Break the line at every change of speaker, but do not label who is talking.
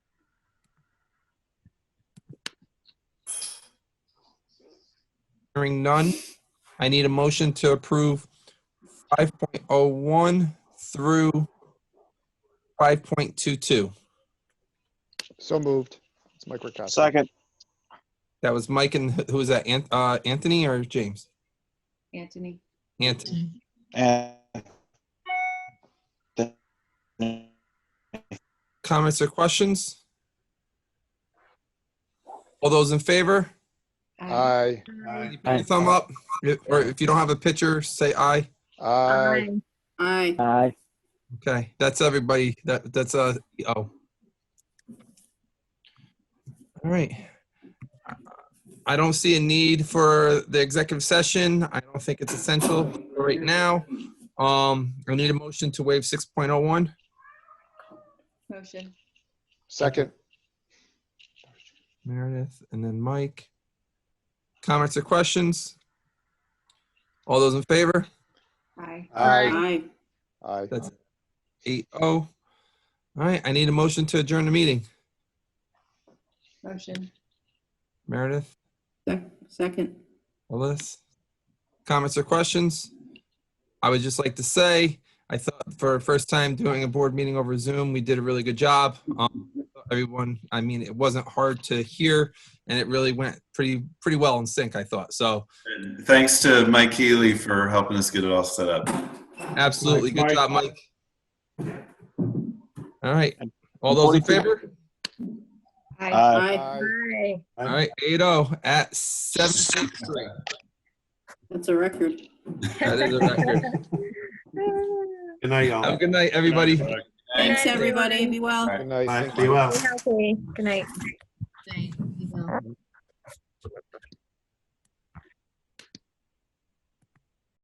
Hearing none, I need a motion to approve 5.01 through 5.22.
So moved. It's Mike Ricassi.
Second,
That was Mike and who was that, Ant- uh, Anthony or James?
Anthony.
Anthony.
and
Comments or questions? All those in favor?
Aye.
Aye.
Put your Thumb up, or if you don't have a picture, say aye.
Aye.
Aye.
Aye.
Okay, that's everybody. That, that's, uh, oh. All right. I don't see a need for the executive session. I don't think it's essential right now. Um, I need a motion to waive six point oh one.
Motion.
Second.
Meredith and then Mike. Comments or questions? All those in favor?
Aye.
Aye.
Aye.
Aye.
That's eight oh. All right, I need a motion to adjourn the meeting.
Motion.
Meredith,
Sec- Second.
Alyssa, comments or questions? I would just like to say, I thought for the first time doing a board meeting over Zoom, we did a really good job. Um, Everyone, I mean, it wasn't hard to hear and it really went pretty, pretty well in sync, I thought. So
And Thanks to Mike Healy for helping us get it all set up.
absolutely, good
Mike.
job, Mike. All right, all those in favor?
aye.
Aye.
Aye.
Aye.
All right, eight oh at seven fifty-three.
That's a record.
That is a record.
Good night, y'all.
Have a good night, everybody.
Thanks, everybody. Be well.
Good night.
Bye.
Thank
Be
you.
well.
Be healthy. Good night.
Thank you.